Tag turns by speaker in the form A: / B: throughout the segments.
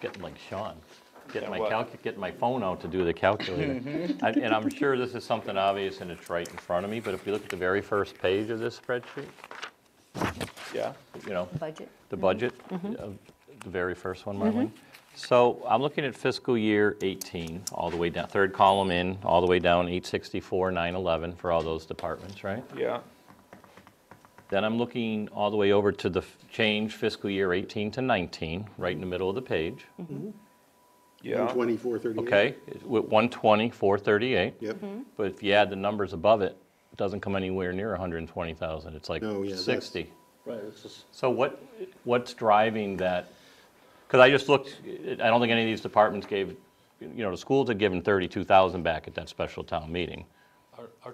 A: getting like Sean, getting
B: Yeah,
A: my
B: what? Mm-hmm.
A: calc, getting my phone out to do the calculator. And and I'm sure this is something obvious and it's right in front of me, but if you look at the very first page of this spreadsheet,
B: Yeah,
A: you know,
C: budget.
A: the budget, uh, the very first one, Marlene. So I'm looking at fiscal year 18, all the way down, third column in, all the way down 864, 911 for all those departments, right?
B: yeah,
A: Then I'm looking all the way over to the f- change fiscal year 18 to 19, right in the middle of the page.
B: yeah.
D: 24, 38.
A: Okay, it's with 120, 438.
D: Yep.
A: But if you add the numbers above it, it doesn't come anywhere near 120,000. It's like
D: No, yeah, that's-
A: 60.
D: Right, it's just-
A: So what, what's driving that? Because I just looked, I don't think any of these departments gave, you know, the schools had given 32,000 back at that special town meeting.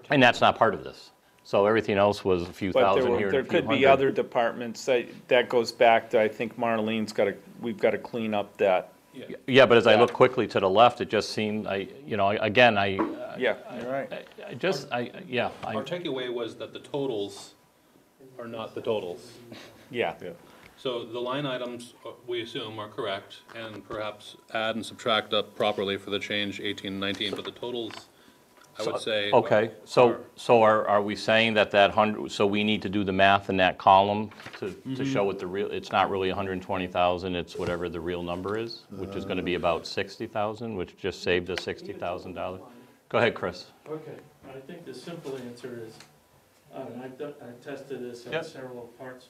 A: And that's not part of this. So everything else was a few
B: But there
A: thousand
B: were-
A: here and a
B: There
A: few
B: could be
A: hundred.
B: other departments, that, that goes back to, I think Marlene's gotta, we've gotta clean up that,
A: Yeah, but as I look
B: Yeah.
A: quickly to the left, it just seemed, I, you know, I- again, I,
B: yeah, you're right.
A: I- I just, I, yeah. I-
E: Our takeaway was that the totals are not the totals.
B: Yeah,
E: So the line items, uh, we assume, are correct, and perhaps add and subtract up properly for the change 18 and 19, but the totals, I would say.
A: Okay, so, so are, are we saying that that hundred, so we need to do the math in that column to, to show what the real, it's not really hundred and twenty thousand, it's whatever the real number is, which is gonna be about sixty thousand, which just saved us sixty thousand dollars? Go ahead, Chris.
F: Okay, I think the simple answer is, uh, and I've done, I've tested this in
A: Yep.
F: several parts.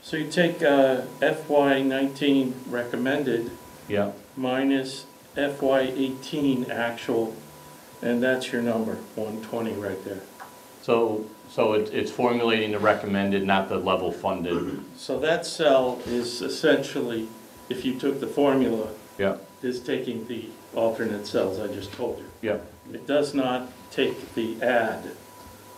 F: So you take uh, FY nineteen recommended
A: Yeah.
F: minus FY eighteen actual, and that's your number, one twenty right there.
A: So, so it's, it's formulating the recommended, not the level funded?
F: So that cell is essentially, if you took the formula,
A: Yeah,
F: is taking the alternate cells I just told you.
A: yeah.
F: It does not take the add,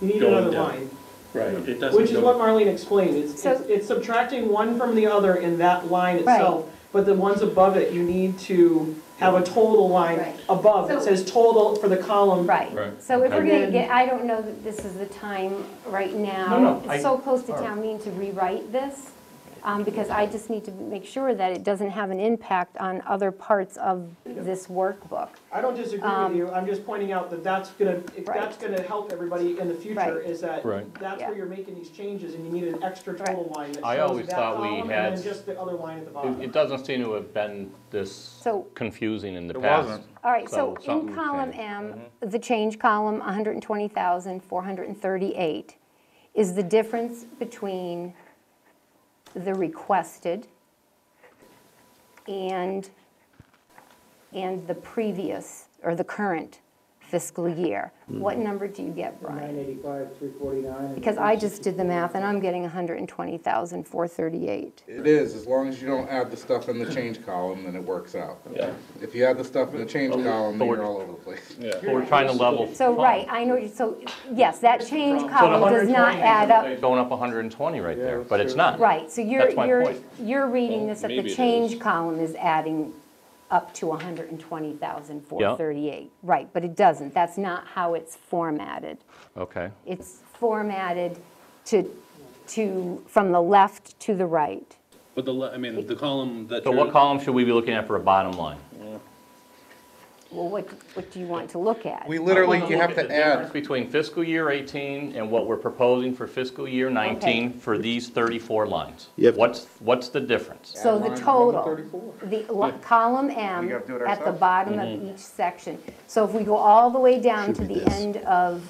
G: You need
F: Going
G: another
F: down.
G: line,
F: right, it doesn't.
G: which is
F: go-
G: what Marlene explained, it's,
C: So-
G: it's it's subtracting one from the other in that line
C: Right.
G: itself. But the ones above it, you need to have a total
C: Right.
G: line above, it
C: So-
G: says total for the column.
C: Right,
E: Right.
C: so if we're
G: And
C: gonna
G: then-
C: get, I don't know that this is the time right now.
A: No, no, I-
C: It's so close to
A: all right.
C: town meeting to rewrite this, um, because I just need to make sure that it doesn't have an impact on other parts of this workbook.
G: I don't disagree with you, I'm just pointing out that that's gonna,
C: Um,
G: if
C: Right.
G: that's gonna help everybody in the future,
C: Right.
G: is that
A: Right.
G: that's where
C: Yeah.
G: you're making these changes, and you need an extra total line that
A: I
G: shows
A: always
G: that
A: thought we
G: column, and
A: had-
G: then just the other line at the
A: It,
G: bottom.
A: it doesn't seem to have been this
C: So-
A: confusing in the
B: It
A: past.
B: wasn't.
C: All right, so
A: So something Mm-hmm.
C: in column
A: changed.
C: M, the change column, 120,438, is the difference between the requested and, and the previous, or the current fiscal year.
A: Mm-hmm.
C: What number do you get, Brian?
G: 985, 349.
C: Because I just did the math, and I'm getting 120,438.
H: It is, as long as you don't add the stuff in the change column, then it works out. If you add the stuff in the change column, then you're all over the place.
A: But we're trying to level.
C: So,
A: fund.
C: right, I know, you- so, yes, that change
A: So the
C: column does not
A: 120
C: add up
A: Going up 120 right there, but it's not.
C: Right, so you're,
A: That's my
C: you're,
A: point.
C: you're reading this, that
E: maybe
C: the
E: it
C: change
E: is.
C: column is adding up to 120,438. Right, but it doesn't, that's not how it's formatted.
A: Okay.
C: It's formatted to, to, from the left to the right.
E: But the, le- I mean, the column that.
A: So
E: you're-
A: what column should we be looking at for a bottom line?
C: Well, what, what do you want to look at?
H: We literally,
A: Look
H: you have
A: at
H: to
A: the difference
H: add,
A: Between fiscal year 18 and what we're proposing for fiscal year 19 for these 34 lines.
D: You have to-
A: What's, what's the difference?
C: So
H: Add
C: the
H: line
C: total,
H: 134.
C: the lo- column M
H: We gotta do it
C: at the
H: ourselves?
C: bottom of each section. So if we go all the way down to
D: Should be
C: the
D: this.
C: end of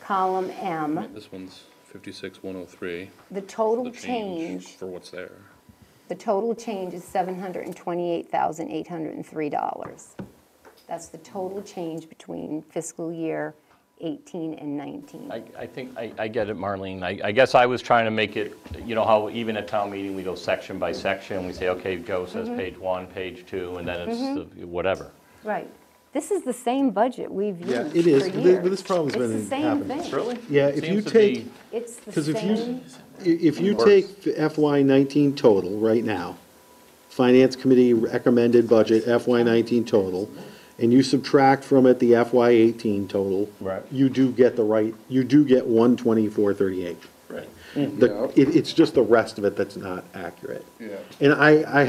C: column M,
E: This one's 56,103,
C: the
E: the
C: total
E: change
C: change
E: for what's there.
C: The total change is $728,803. That's the total change between fiscal year 18 and 19.
A: I, I think, I, I get it, Marlene. I, I guess I was trying to make it, you know, how even at town meeting, we go section by section. We say, okay, Joe says
H: Mm-hmm.
A: page one, page two, and then it's the- whatever.
C: Right. This is the same budget we've used
D: Yeah,
C: for years.
D: it is, but thi- but this problem's
C: It's
D: been
C: the same
D: happening.
C: thing.
A: Really?
D: Yeah, if you
A: Seems to be-
D: take-
C: It's the
D: 'Cause if you-
C: same,
D: I- If you
A: Worse.
D: take the FY nineteen total right now, Finance Committee recommended budget FY nineteen total, and you subtract from it the FY eighteen total.
A: Right.
D: You do get the right, you do get one twenty-four thirty-eight.
F: Right.
D: The, it, it's just the rest of it that's not accurate.
H: Yeah.
D: And I, I